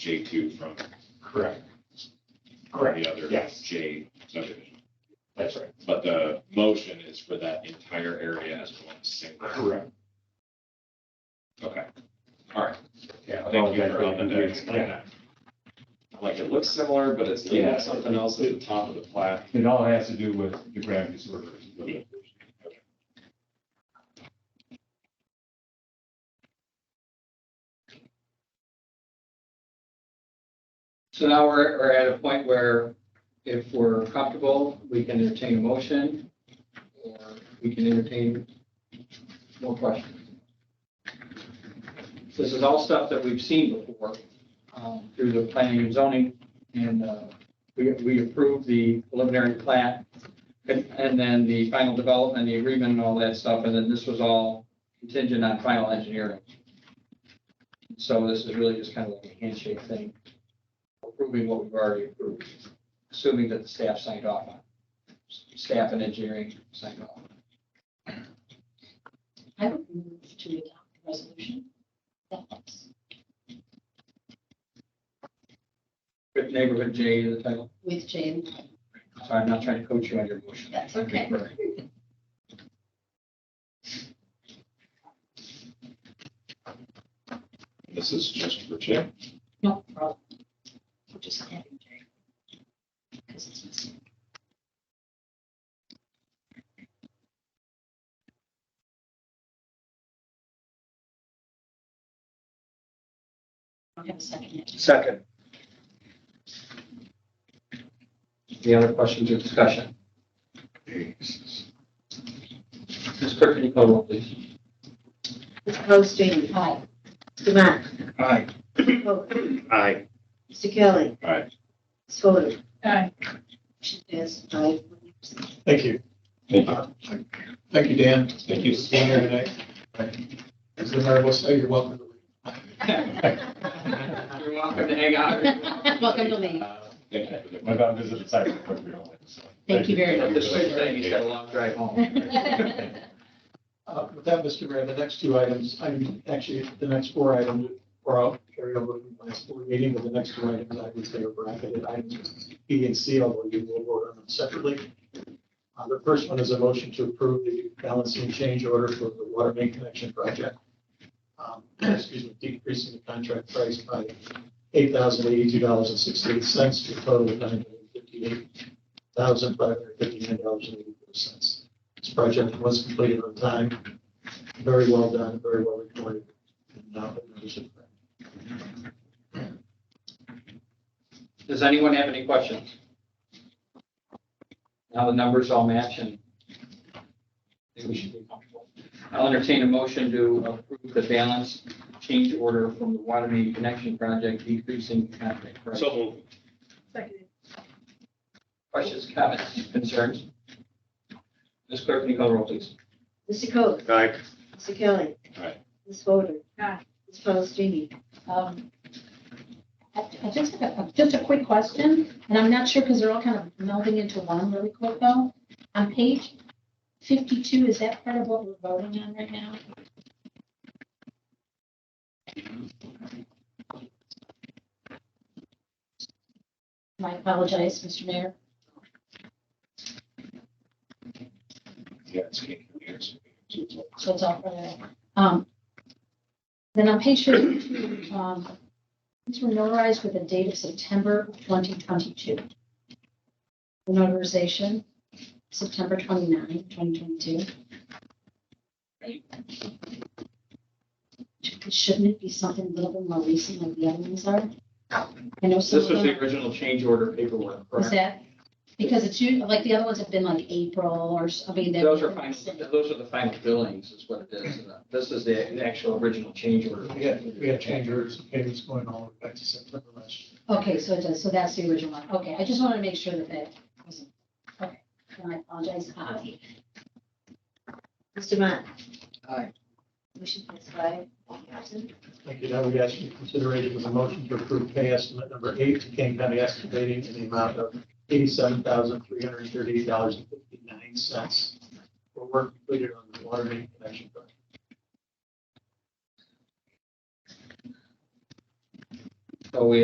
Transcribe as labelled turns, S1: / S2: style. S1: J two from
S2: Correct.
S1: from
S2: Correct.
S1: the other
S2: Yes.
S1: J subdivision.
S2: That's right.
S1: But the motion is for that entire area as one single.
S2: Correct.
S1: Okay, all right.
S2: Yeah.
S1: Thank you for helping to
S2: Yeah.
S1: explain that. Like, it looks similar, but it's leaving something else at the top of the plat.
S2: It all has to do with the gravity sort of.
S3: So now we're, we're at a point where if we're comfortable, we can entertain a motion or we can entertain more questions. This is all stuff that we've seen before um, through the planning and zoning and uh, we, we approved the preliminary plat and and then the final development, the agreement and all that stuff. And then this was all contingent on final engineering. So this is really just kind of like a handshake thing approving what we've already approved, assuming that the staff signed off on. it. Staff and engineering signed off.
S4: I would move to adopt the resolution. That helps.
S3: With neighborhood J in the title.
S4: With J and
S3: Sorry, I'm not trying to coach you on your motion.
S4: That's okay.
S1: This is just for J.
S4: No problem. We're just adding J. Because it's missing. I don't have a second yet.
S3: Second. Any other questions or discussion? Ms. Clerk, can you call the roll, please?
S5: Mr. Poston.
S4: Aye.
S5: Mr. Matt.
S3: Aye.
S5: Mr. Coe.
S2: Aye.
S5: Mr. Kelly.
S1: Aye.
S5: Ms. Fodor.
S4: Aye. Motion is
S5: Aye.
S2: Thank you.
S1: Thank
S2: Thank you, Dan.
S1: Thank you.
S2: Being here today. As the mayor will say, you're welcome.
S3: You're welcome to hang out.
S4: Welcome to me.
S2: Uh,
S1: Thank you for the-
S2: My dad visited the site. but we don't like it, so.
S4: Thank you very
S3: At
S4: much.
S3: This way, thank you. Got a long drive home.
S6: Uh, With that, Mr. Mayor, the next two items, I'm actually, the next four items are out, carried over from last board meeting, but the next two items, I would say are bracketed items, B and C, although you will vote on them separately. Uh, The first one is a motion to approve the balancing change order for the water main connection project. Um, Excuse me, decreasing the contract price by eight thousand eighty-two dollars and sixty-eight cents to a total of nine hundred fifty-eight thousand five hundred fifty-nine dollars and eighty-four cents. This project was completed on time, very well done, very well recorded. and now the numbers are correct.
S3: Does anyone have any questions? Now the numbers all match and I think we should be comfortable. I'll entertain a motion to approve the balance change order from the water main connection project decreasing contract price.
S1: So moved.
S3: Questions, comments, concerns? Ms. Clerk, can you call the roll, please?
S5: Mr. Coe.
S1: Aye.
S5: Mr. Kelly.
S1: Aye.
S5: Ms. Fodor.
S4: Aye.
S5: Ms. Paulini.
S4: Um, I I just have a, just a quick question, and I'm not sure because they're all kind of melding into one really quick though. On page fifty-two, is that part of what we're voting on right now? I apologize, Mr. Mayor.
S1: Yeah, it's King Years.
S4: so it's all for that. Um, Then on page thirty-two, um, these were notarized with a date of September twenty twenty-two. The notarization, September 29, 2022. Shouldn't it be something a little bit more recent like the other ones are? I know
S3: This
S4: some
S3: was
S4: of them-
S3: the original change order paperwork,
S4: was
S3: correct?
S4: that, because it's usually, like the other ones have been like April or, s- I mean. they've
S3: Those are
S4: been
S3: final,
S4: recent.
S3: those are the final billings is what it is. Uh, This is the the actual original change order.
S6: We had, we had change orders and payments going all the way back to September last year.
S4: Okay, so it does, so that's the original one. Okay, I just wanted to make sure that that wasn't, okay, and I apologize. Aye.
S5: Mr. Matt.
S3: Aye.
S5: Motion passed by one absent.
S6: Thank you. Now we ask you to consider it as a motion to approve pay estimate number eight, to King County Excavating in the amount of eighty-seven thousand, three hundred and thirty-eight dollars and fifty-nine cents for work completed on the water main connection project.
S3: So we